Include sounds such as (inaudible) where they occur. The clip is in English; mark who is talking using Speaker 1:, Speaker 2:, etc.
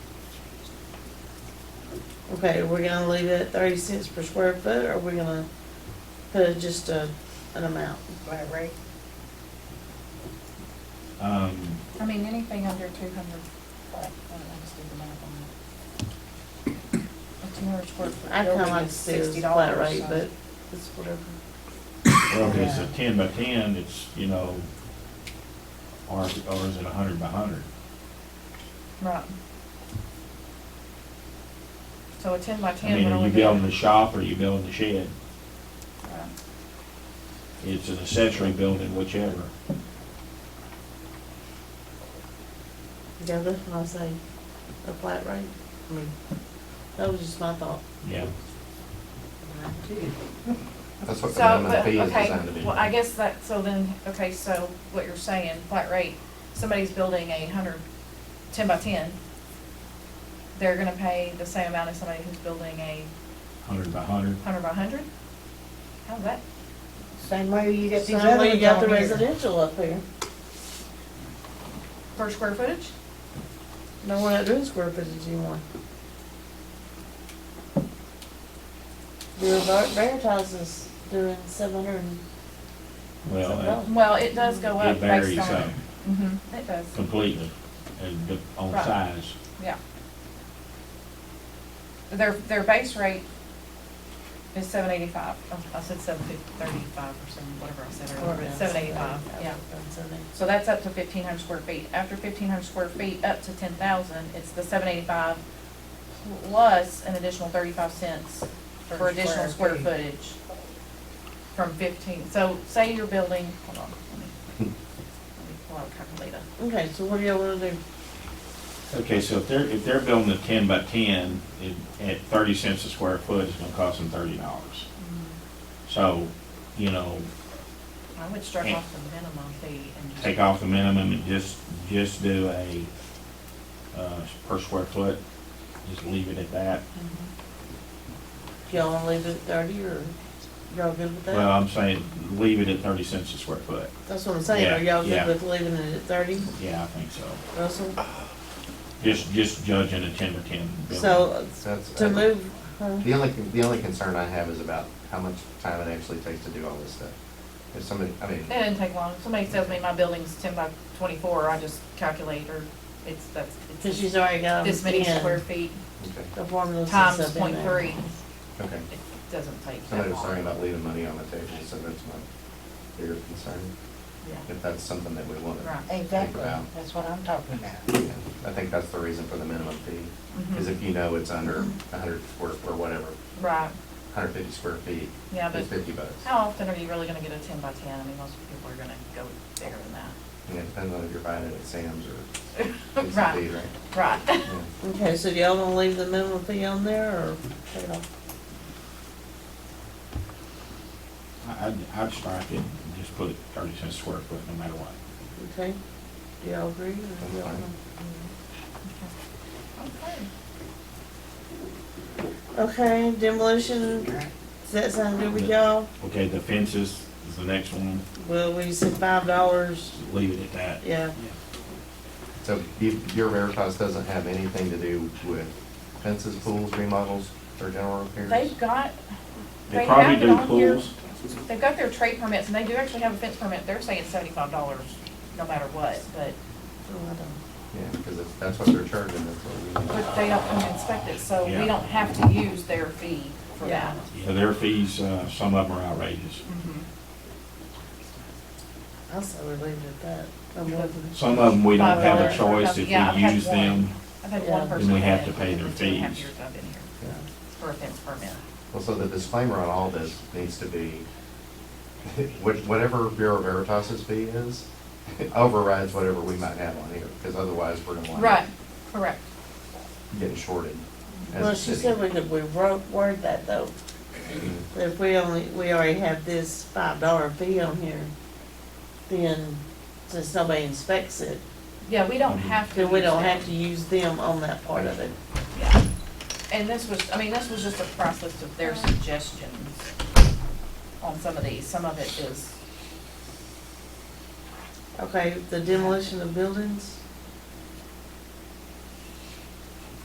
Speaker 1: Okay, we're gonna leave it at thirty cents per square foot, or we're gonna put just a, an amount?
Speaker 2: Flat rate.
Speaker 3: Um,
Speaker 2: I mean, anything under two hundred, I just did the math on that. A two hundred square foot
Speaker 1: I kinda
Speaker 2: building
Speaker 1: like to
Speaker 2: is
Speaker 1: see it as
Speaker 2: sixty
Speaker 1: a
Speaker 2: dollars.
Speaker 1: flat rate, but it's whatever.
Speaker 3: well, if it's a ten by ten, it's, you know, or, or is it a hundred by hundred?
Speaker 2: Right. So a ten by
Speaker 3: I
Speaker 2: ten
Speaker 3: mean,
Speaker 2: would
Speaker 3: are
Speaker 2: only
Speaker 3: you
Speaker 2: be.
Speaker 3: building a shop or are you building a shed?
Speaker 2: Right.
Speaker 3: It's an accessory building, whichever.
Speaker 1: Yeah, that's what I say, a flat rate. I mean, that was just my thought.
Speaker 3: Yeah.
Speaker 4: That's what the
Speaker 2: So,
Speaker 4: minimum
Speaker 2: but,
Speaker 4: fee is
Speaker 2: okay,
Speaker 4: designed to be.
Speaker 2: well, I guess that, so then, okay, so what you're saying, flat rate, somebody's building a hundred, ten by ten, they're gonna pay the same amount as somebody who's building a
Speaker 3: Hundred by hundred.
Speaker 2: hundred by hundred? How's that?
Speaker 5: Same way you get
Speaker 1: Same
Speaker 5: these other
Speaker 1: way you
Speaker 5: ones
Speaker 1: got the
Speaker 5: on here.
Speaker 1: residential up here.
Speaker 2: Per square footage?
Speaker 1: No, we're not doing square footage anymore. Your Ver- Veritas is doing seven hundred and
Speaker 3: Well,
Speaker 2: Well, it does go
Speaker 3: it- it
Speaker 2: up
Speaker 3: varies
Speaker 2: based on.
Speaker 3: um,
Speaker 2: Mm-hmm, it does,
Speaker 3: completely, and the- on
Speaker 2: Right.
Speaker 3: size.
Speaker 2: yeah. Their, their base rate is seven eighty-five, I said seven fifty, thirty-five or some, whatever I said earlier, but seven eighty-five, yeah. So that's up to fifteen hundred square feet. After fifteen hundred square feet, up to ten thousand, it's the seven eighty-five plus an additional thirty-five cents for additional square footage from fifteen. So say you're building, hold on, let me, let me pull out a calculator.
Speaker 1: Okay, so what do y'all wanna do?
Speaker 3: Okay, so if they're, if they're building a ten by ten, it, at thirty cents a square foot, it's gonna cost them thirty dollars.
Speaker 2: Mm-hmm.
Speaker 3: So, you know,
Speaker 2: I would start off the minimum fee and just.
Speaker 3: take off the minimum and just, just do a, uh, per square foot, just leave it at that.
Speaker 2: Mhm.
Speaker 1: Y'all wanna leave it at thirty, or y'all good with
Speaker 3: Well,
Speaker 1: that?
Speaker 3: I'm saying, leave it at thirty cents a square foot.
Speaker 1: That's what I'm saying, are
Speaker 3: yeah,
Speaker 1: y'all good
Speaker 3: yeah. Uh,
Speaker 1: with leaving it at thirty,
Speaker 3: Yeah, I think so.
Speaker 1: Russell?
Speaker 3: Just, just judging a ten by ten building.
Speaker 1: So,
Speaker 4: That's- uh,
Speaker 3: Uh,
Speaker 1: to move, huh?
Speaker 4: The only, the only concern I have is about how much time it actually takes to do all this stuff. If somebody, I mean,
Speaker 2: It didn't take long. Somebody tells me my building's ten by twenty-four, I just calculate or it's, that's,
Speaker 1: cause
Speaker 2: it's
Speaker 1: she's already got
Speaker 2: this
Speaker 1: them
Speaker 2: many square
Speaker 1: in,
Speaker 2: feet
Speaker 4: okay,
Speaker 1: the formulas and
Speaker 2: times
Speaker 1: stuff in
Speaker 2: point
Speaker 1: there.
Speaker 2: three.
Speaker 4: okay.
Speaker 2: It doesn't take that
Speaker 4: Somebody was talking
Speaker 2: long.
Speaker 4: about leaving money on the table, so that's my bigger concern,
Speaker 2: Yeah.
Speaker 4: if that's something that we want to.
Speaker 2: Right.
Speaker 5: Exactly, that's what I'm talking about.
Speaker 4: I think that's the reason for the minimum fee, is
Speaker 2: Mhm.
Speaker 4: if you know it's under hundred square, or whatever,
Speaker 2: Right,
Speaker 4: hundred fifty square feet,
Speaker 2: yeah, but
Speaker 4: it's fifty bucks.
Speaker 2: how often are you really gonna get a ten by ten? I mean, most people are gonna go bigger than that.
Speaker 4: And it depends on if you're buying it at Sam's
Speaker 2: (laughs)
Speaker 4: or Sam's
Speaker 2: Right,
Speaker 4: right? (laughs)
Speaker 2: right.
Speaker 4: Yeah.
Speaker 1: Okay, so do y'all wanna leave the minimum fee on there, or take it off?
Speaker 3: I- I'd, I'd strike it and just put thirty cents a square foot no matter what.
Speaker 1: Okay, do y'all agree? or do y'all
Speaker 4: fine.
Speaker 1: wanna-
Speaker 2: Okay.
Speaker 1: Okay, demolition, does that sound good with y'all?
Speaker 3: Okay, the fences is the next one,
Speaker 1: Well, we said five dollars,
Speaker 3: Just leave it at that.
Speaker 1: yeah,
Speaker 4: So you- your Veritas doesn't have anything to do with fences, pools, remodels, or general repairs?
Speaker 2: They've got,
Speaker 3: They
Speaker 2: They
Speaker 3: probably
Speaker 2: have it
Speaker 3: do
Speaker 2: on here.
Speaker 3: pools,
Speaker 2: they've got their trade permits and they do actually have a fence permit. They're saying seventy-five dollars no matter what, but,
Speaker 1: so Oh, I don't.
Speaker 4: Yeah, because if that's what they're charging, that's what we need.
Speaker 2: but they don't come and inspect it, so
Speaker 3: Yeah.
Speaker 2: we don't have to use their fee for
Speaker 1: Yeah.
Speaker 2: that.
Speaker 3: Yeah, their fees, uh, some of them are outrageous.
Speaker 2: Mhm.
Speaker 1: I'll say we leave it at that. I'm looking.
Speaker 3: Some of them, we don't
Speaker 2: Five
Speaker 3: have a
Speaker 2: dollars per
Speaker 3: choice,
Speaker 2: cup.
Speaker 3: if
Speaker 2: Yeah, I've
Speaker 3: we
Speaker 2: had
Speaker 3: use
Speaker 2: one.
Speaker 3: them,
Speaker 2: I've had
Speaker 1: Yeah.
Speaker 2: one person.
Speaker 3: we have
Speaker 2: that
Speaker 3: to pay their
Speaker 2: in two and a half
Speaker 3: fees.
Speaker 2: years I've been here
Speaker 4: Yeah.
Speaker 2: for a fence permit.
Speaker 4: Well, so the disclaimer on all this needs to be, (laughs) what- whatever Bureau Veritas's fee is, overrides whatever we might have on here, because otherwise we're gonna wind up
Speaker 2: Right, correct.
Speaker 4: getting shorted. as
Speaker 1: Well,
Speaker 4: a
Speaker 1: she
Speaker 4: city.
Speaker 1: said we could, we wrote, word that though, that if we only, we already have this five dollar fee on here, then since nobody inspects it,
Speaker 2: Yeah, we
Speaker 3: Mm-hmm.
Speaker 2: don't have to.
Speaker 1: then we
Speaker 2: use
Speaker 1: don't
Speaker 2: them.
Speaker 1: have to use them on that part of it.
Speaker 2: Yeah. And this was, I mean, this was just a price list of their suggestions on some of these. Some of it is,
Speaker 1: Okay, the demolition of buildings,